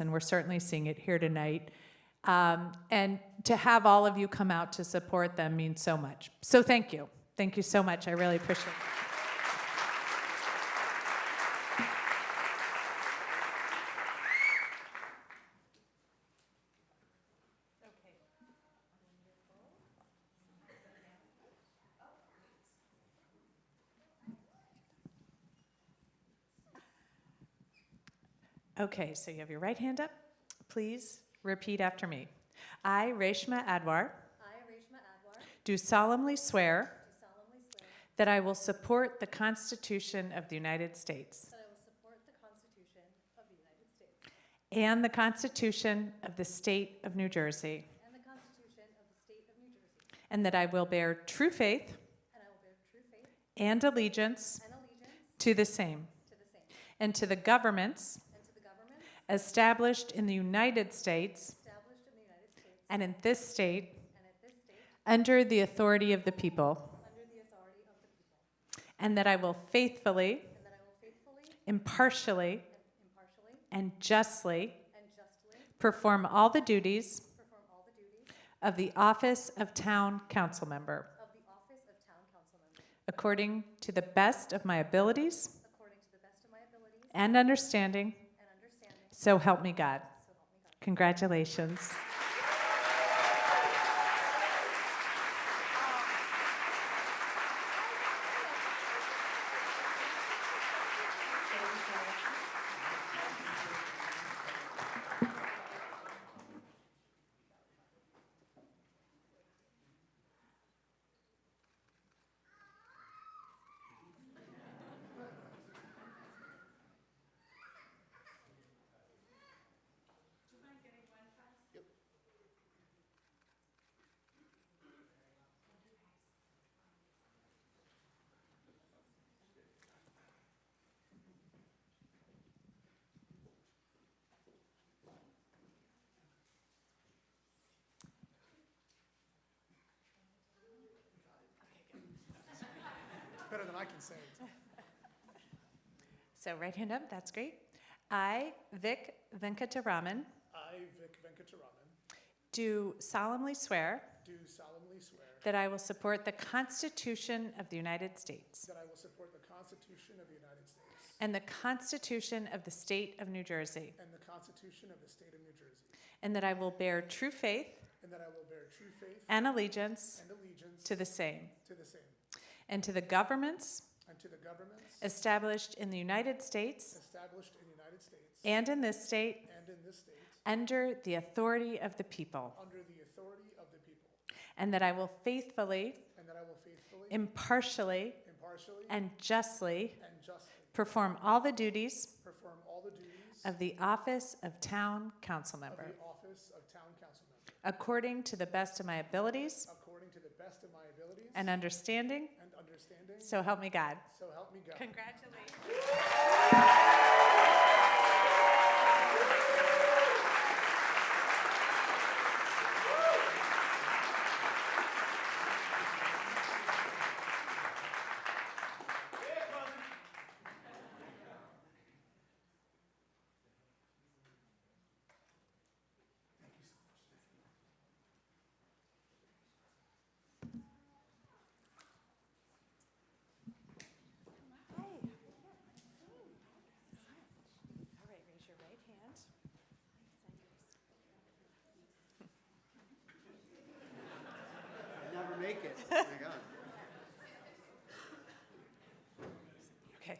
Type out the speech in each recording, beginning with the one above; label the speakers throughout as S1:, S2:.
S1: and we're certainly seeing it here tonight. Um, and to have all of you come out to support them means so much. So thank you. Thank you so much. I really appreciate it. Okay, so you have your right hand up. Please repeat after me. I, Reshma Adwar,
S2: I, Reshma Adwar, do
S1: do solemnly swear
S2: solemnly swear
S1: that I will support the Constitution of the United States
S2: that I will support the Constitution of the United States
S1: and the Constitution of the State of New Jersey,
S2: and the Constitution of the State of New Jersey,
S1: and that I will bear true faith
S2: and I will bear true faith
S1: and allegiance
S2: and allegiance
S1: to the same
S2: to the same,
S1: and to the governments
S2: and to the government
S1: established in the United States
S2: established in the United States
S1: and in this state
S2: and at this state,
S1: under the authority of the people,
S2: under the authority of the people,
S1: and that I will faithfully,
S2: and that I will faithfully,
S1: impartially,
S2: and impartially,
S1: and justly
S2: and justly
S1: perform all the duties
S2: perform all the duties
S1: of the office of town council member
S2: of the office of town council member,
S1: according to the best of my abilities
S2: according to the best of my abilities
S1: and understanding.
S2: and understanding,
S1: So help me God.
S2: so help me God.
S1: Congratulations.
S3: better than I can say it.
S1: So right hand up, that's great. I, Vic Venkataraman,
S3: I, Vic Venkataraman,
S1: do solemnly swear
S3: do solemnly swear
S1: that I will support the Constitution of the United States
S3: that I will support the Constitution of the United States
S1: and the Constitution of the State of New Jersey,
S3: and the Constitution of the State of New Jersey,
S1: and that I will bear true faith
S3: and that I will bear true faith
S1: and allegiance
S3: and allegiance
S1: to the same
S3: to the same,
S1: and to the governments
S3: and to the governments
S1: established in the United States
S3: established in the United States
S1: and in this state
S3: and in this state
S1: under the authority of the people,
S3: under the authority of the people,
S1: and that I will faithfully,
S3: and that I will faithfully,
S1: impartially,
S3: impartially,
S1: and justly
S3: and justly
S1: perform all the duties
S3: perform all the duties
S1: of the office of town council
S3: of
S1: member
S3: the office of town council member
S1: according to the best of my abilities
S3: according to the best of my abilities
S1: and understanding.
S3: and understanding,
S1: So help me God.
S3: so help me God.
S1: Congratulations. All right, raise your right hand.
S4: never make it. Oh my God.
S1: Okay.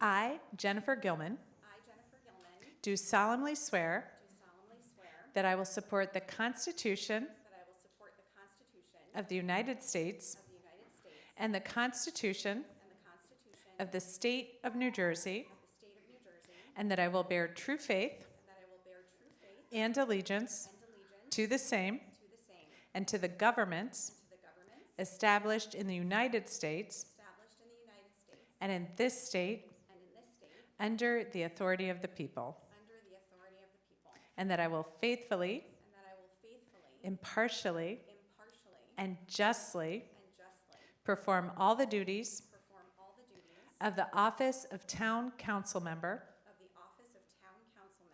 S1: I, Jennifer Gilman,
S2: I, Jennifer Gilman,
S1: do solemnly swear
S2: do solemnly swear
S1: that I will support the Constitution
S2: that I will support the Constitution
S1: of the United States
S2: of the United States
S1: and the Constitution
S2: and the Constitution
S1: of the State of New Jersey,
S2: of the State of New Jersey,
S1: and that I will bear true faith
S2: and that I will bear true faith
S1: and allegiance
S2: and allegiance
S1: to the same
S2: to the same,
S1: and to the governments
S2: to the governments
S1: established in the United States
S2: established in the United States
S1: and in this state
S2: and in this state,
S1: under the authority of the people,
S2: under the authority of the people,
S1: and that I will faithfully,
S2: and that I will faithfully,
S1: impartially,
S2: impartially,
S1: and justly
S2: and justly
S1: perform all the duties
S2: perform all the duties
S1: of the office of town council member